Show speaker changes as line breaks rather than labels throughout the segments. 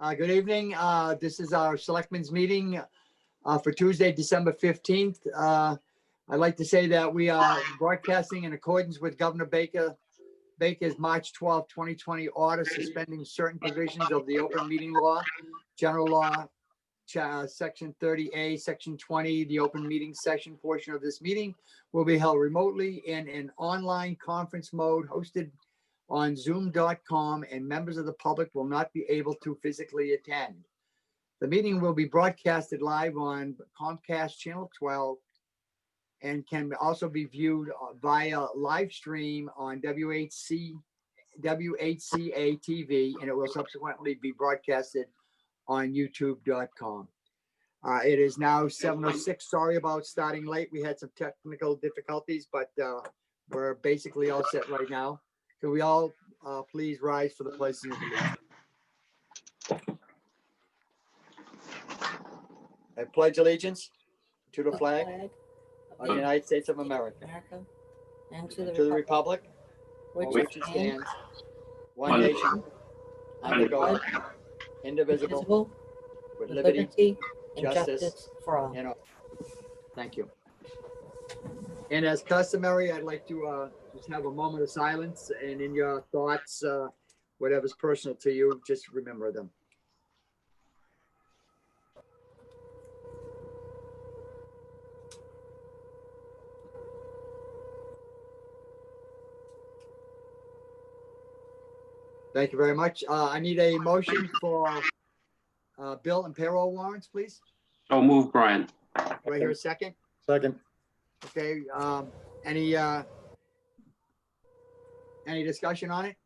Uh, Good evening. Uh, This is our Selectmen's meeting uh, for Tuesday, December 15th. Uh, I'd like to say that we are broadcasting in accordance with Governor Baker, Baker's March 12, 2020 order suspending certain provisions of the open meeting law, general law, cha- Section 30A, Section 20, the open meeting session portion of this meeting will be held remotely in an online conference mode hosted on zoom.com and members of the public will not be able to physically attend. The meeting will be broadcasted live on Comcast Channel 12 and can also be viewed uh, via live stream on WHC, WHCA TV, and it will subsequently be broadcasted on youtube.com. Uh, it is now 7:06. Sorry about starting late. We had some technical difficulties, but, uh, we're basically all set right now. Can we all uh, please rise for the pledge of allegiance? I pledge allegiance to the flag of the United States of America,
America, and
and to the republic for which it stands, one nation, under God, indivisible,
Visible,
with liberty
liberty,
and justice, justice
for all.
and all. Thank you. And as customary, I'd like to uh, just have a moment of silence and in your thoughts, uh, whatever's personal to you, just remember them. Thank you very much. Uh, I need a motion for uh, bill and payroll warrants, please.
So move, Brian.
Do I hear a second?
Second.
Okay, um, any, uh, any discussion on it?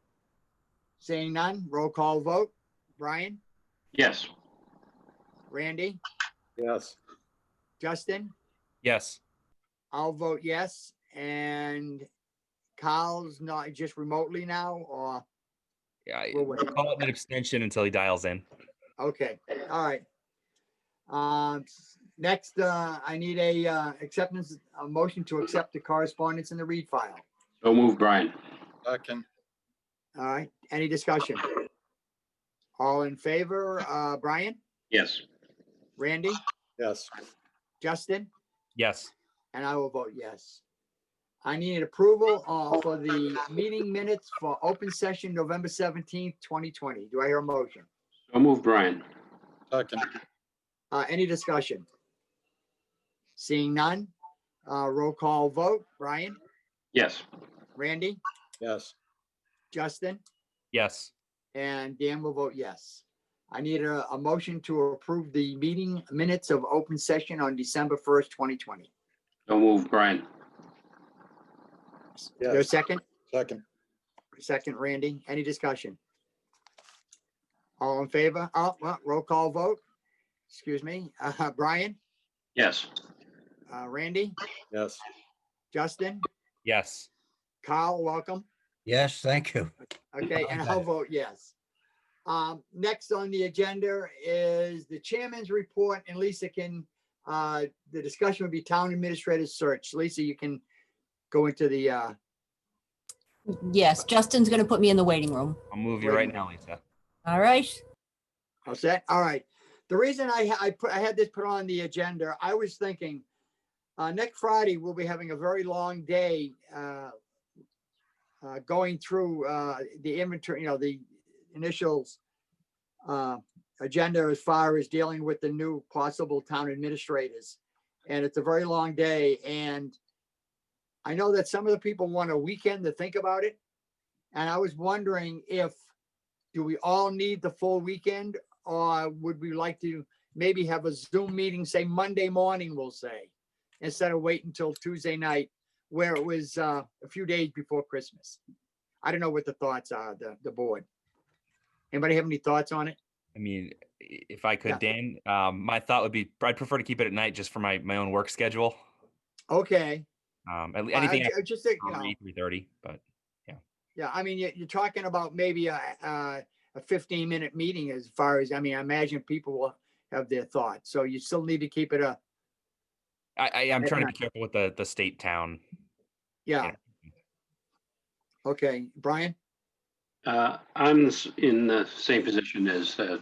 Seeing none, roll call vote. Brian,
Yes.
Randy,
Yes.
Justin,
Yes.
I'll vote yes, and Kyle's not just remotely now, or,
Yeah. I-
We'll wait.
we'll Call it an abstention until he dials in.
okay, all right. Um, next, uh, I need a, uh, acceptance, a motion to accept the correspondence in the read file.
So move, Brian.
Second.
All right, any discussion? All in favor, uh, Brian,
Yes.
Randy?
Yes.
Justin,
Yes.
and I will vote yes. I need approval uh, for the meeting minutes for open session November seventeenth, twenty twenty. Do I hear a motion?
So move, Brian.
Second.
Uh, Any discussion? Seeing none, uh, roll call vote. Brian,
Yes.
Randy,
Yes.
Justin,
Yes.
and Dan will vote yes. I need a, a motion to approve the meeting minutes of open session on December first, twenty twenty.
So move, Brian.
Your second?
Second.
Second, Randy. Any discussion? All in favor? Oh, well, roll call vote. Excuse me. Uh, Brian,
Yes.
uh, Randy,
Yes.
Justin,
Yes.
Kyle, welcome.
Yes, thank you.
Okay, and I'll vote yes. Um, next on the agenda is the chairman's report and Lisa can, uh, the discussion would be town administrator's search. Lisa, you can go into the, uh,
Yes, Justin's going to put me in the waiting room.
I'll move you
Wait a
right
minute.
now, Lisa.
All right.
All set? All right. The reason I, ha- I put, I had this put on the agenda, I was thinking, uh, next Friday, we'll be having a very long day, uh, uh, going through, uh, the inventory, you know, the initials, uh, agenda as far as dealing with the new possible town administrators. And it's a very long day and I know that some of the people want a weekend to think about it. And I was wondering if, do we all need the full weekend or would we like to maybe have a Zoom meeting, say Monday morning, we'll say, instead of waiting until Tuesday night, where it was uh, a few days before Christmas? I don't know what the thoughts are, the, the board. Anybody have any thoughts on it?
I mean, i- if I could, Dan, um, my thought would be I'd prefer to keep it at night just for my, my own work schedule.
Okay.
Um, at le-
I- I
anything
ju- I Just think, you know,
after three thirty, but
yeah, I mean, you- you're talking about maybe a, a a 15 minute meeting as far as, I mean, I imagine people will have their thoughts. So you still need to keep it a,
I, I am
At
trying to be careful with the the state town.
yeah. Okay, Brian?
Uh, I'm s- in the same position as uh,